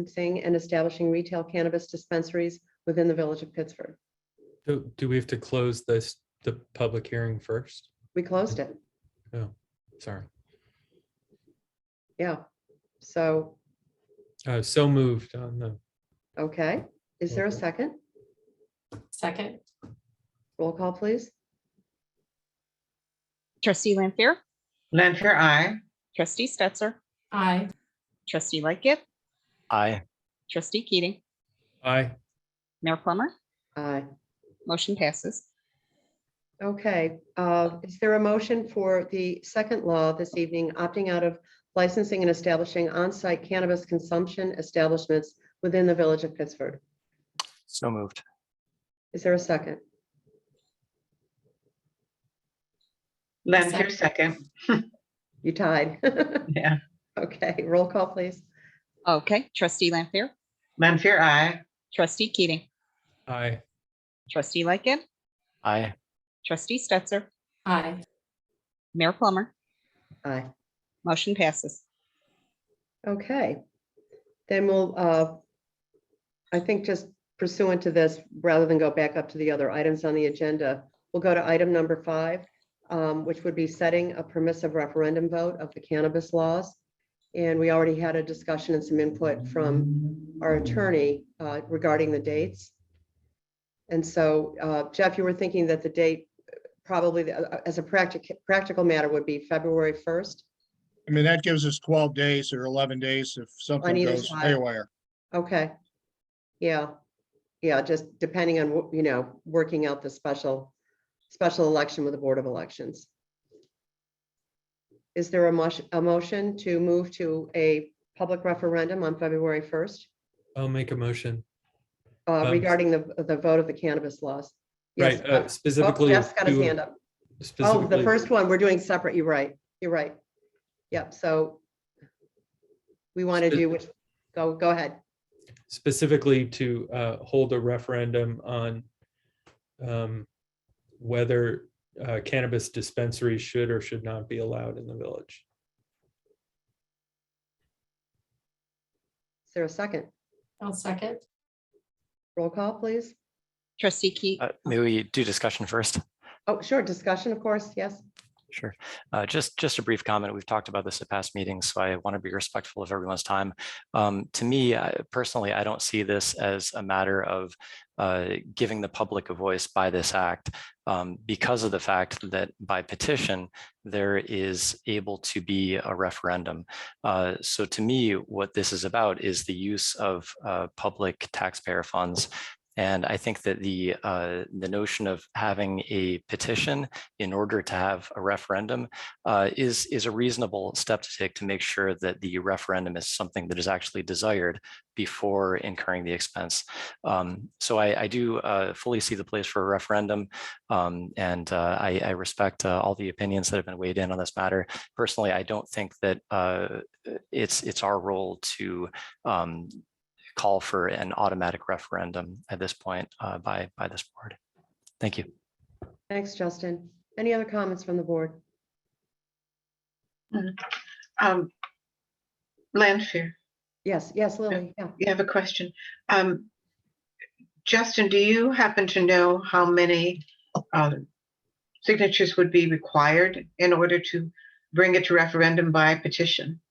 licensing and establishing retail cannabis dispensaries within the village of Pittsford. Do, do we have to close this, the public hearing first? We closed it, Sorry. yeah. So, Uh, so moved on the, okay, is there a second? Second, Roll call, please. Trustee Lampier, Lanfear, I. trustee Stetser, aye. trustee Lightgift, Aye. trustee Keating, aye, Mayor Plummer, Aye. motion passes. Okay, uh, is there a motion for the second law this evening, opting out of licensing and establishing on-site cannabis consumption establishments within the village of Pittsford? So moved. Is there a second? Lanfear, second. You tied. Yeah. Okay, roll call, please. Okay, trustee Lampier, Lanfear, I. trustee Keating, aye, trustee Lightgift, Aye. trustee Stetser, Aye. Mayor Plummer, Aye. motion passes. Okay, then we'll, uh, I think just pursuant to this, rather than go back up to the other items on the agenda, we'll go to item number five, um, which would be setting a permissive referendum vote of the cannabis laws. And we already had a discussion and some input from our attorney uh, regarding the dates. And so uh, Jeff, you were thinking that the date probably, uh, as a practical, practical matter, would be February 1st? I mean, that gives us twelve days or eleven days if something either goes side. haywire. Okay, yeah, yeah, just depending on, what you know, working out the special, special election with the Board of Elections. Is there a motion, a motion to move to a public referendum on February 1st I'll make a motion. uh, Um, regarding the, the vote of the cannabis laws? Yes, Right, uh, uh, oh, specifically. Jeff's got his to- hand up. Oh, the specifically- first one, we're doing separate, you're right, you're right. Yep, so we want to Spe- do which, go, go ahead. Specifically to, uh, hold a referendum on, um, whether uh, cannabis dispensaries should or should not be allowed in the village. Is there a second? I'll second. Roll call, please. Trustee Keating, Uh, May we do discussion first? Oh, sure, discussion, of course, yes. Sure. Uh, Just, just a brief comment. We've talked about this at past meetings, so I want to be respectful of everyone's time. Um, To me, I- personally, I don't see this as a matter of uh, giving the public a voice by this act um, because of the fact that by petition, there is able to be a referendum. Uh, So to me, what this is about is the use of uh, public taxpayer funds. And I think that the, uh, the notion of having a petition in order to have a referendum uh, is is a reasonable step to take to make sure that the referendum is something that is actually desired before incurring the expense. Um, so I, I do uh, fully see the place for a referendum, um, and uh, I, I respect uh, all the opinions that have been weighed in on this matter. Personally, I don't think that uh, it's it's our role to. Um, call for an automatic referendum at this point uh, by by this board. Thank you. Thanks, Justin. Any other comments from the board? Um, Lanfear, Yes, yes, Lily, yeah. you have a question. Um, Justin, do you happen to know how many um, signatures would be required in order to bring it to referendum by petition?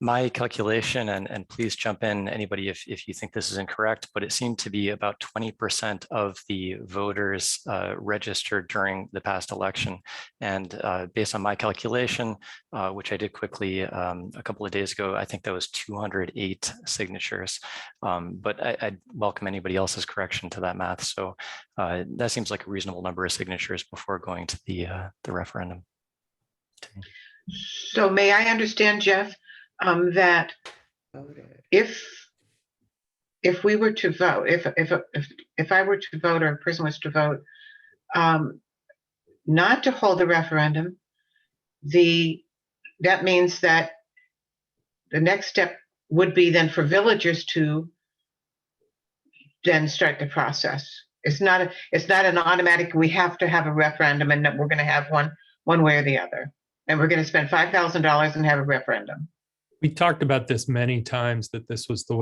My calculation, and, and please jump in, anybody, if, if you think this is incorrect, but it seemed to be about twenty percent of the voters uh, registered during the past election. And uh, based on my calculation, uh, which I did quickly um, a couple of days ago, I think that was two hundred eight signatures. Um, But I, I'd welcome anybody else's correction to that math. So uh, that seems like a reasonable number of signatures before going to the, uh, the referendum. So may I understand, Jeff, um, that if, if we were to vote, if, if, if, if I were to vote or a person was to vote, um, not to hold the referendum, the, that means that the next step would be then for villagers to then start the process. It's not, a- it's not an automatic, we have to have a referendum and that we're gonna have one, one way or the other. And we're gonna spend five thousand dollars and have a referendum. We talked about this many times, that this was the way.